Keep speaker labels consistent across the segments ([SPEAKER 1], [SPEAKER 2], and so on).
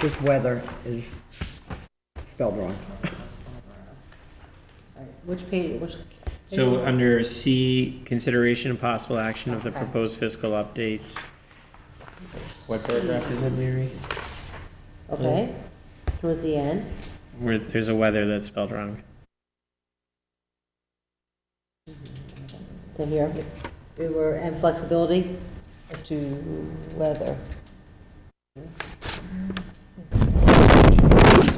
[SPEAKER 1] This weather is spelled wrong.
[SPEAKER 2] Which page, which?
[SPEAKER 3] So under C, consideration and possible action of the proposed fiscal updates. What paragraph is it, Leary?
[SPEAKER 2] Okay, towards the end.
[SPEAKER 3] Where, there's a weather that's spelled wrong.
[SPEAKER 2] to here. We were, and flexibility as to whether.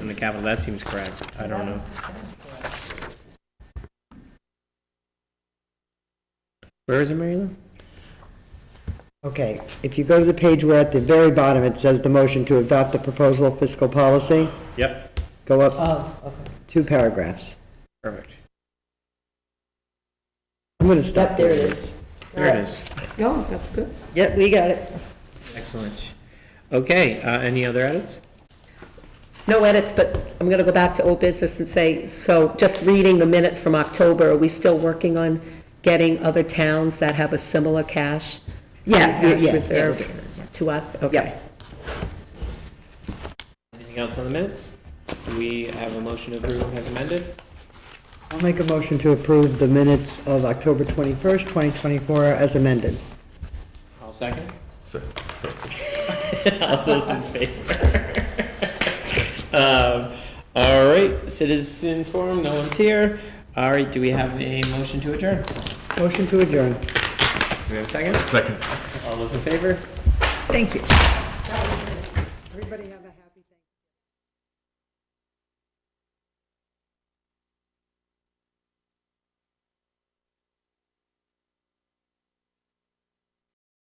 [SPEAKER 3] In the capital, that seems correct. I don't know. Where is it, Mary Lou?
[SPEAKER 1] Okay, if you go to the page where at the very bottom, it says the motion to adopt the proposal of fiscal policy,
[SPEAKER 3] Yep,
[SPEAKER 1] go up
[SPEAKER 2] Oh, okay.
[SPEAKER 1] two paragraphs.
[SPEAKER 3] perfect.
[SPEAKER 1] I'm going to stop.
[SPEAKER 2] Yep, there it is.
[SPEAKER 3] There it is.
[SPEAKER 2] No, that's good.
[SPEAKER 1] Yep, we got it.
[SPEAKER 3] Excellent. Okay, uh, any other edits?
[SPEAKER 4] No edits, but I'm going to go back to old business and say, so just reading the minutes from October, are we still working on getting other towns that have a similar cash?
[SPEAKER 1] Yeah, yeah,
[SPEAKER 4] cash
[SPEAKER 1] yeah, yeah,
[SPEAKER 4] reserve
[SPEAKER 1] yeah,
[SPEAKER 4] To us? Okay.
[SPEAKER 3] Anything else on the minutes? Do we have a motion to approve as amended?
[SPEAKER 1] I'll make a motion to approve the minutes of October 21st, 2024 as amended.
[SPEAKER 3] I'll second. All those in favor? Um, All right, citizens forum, no one's here. All right, do we have a motion to adjourn? Do
[SPEAKER 1] Motion to adjourn.
[SPEAKER 3] we have a second?
[SPEAKER 5] Second.
[SPEAKER 3] All those in favor?
[SPEAKER 1] Everybody have a happy.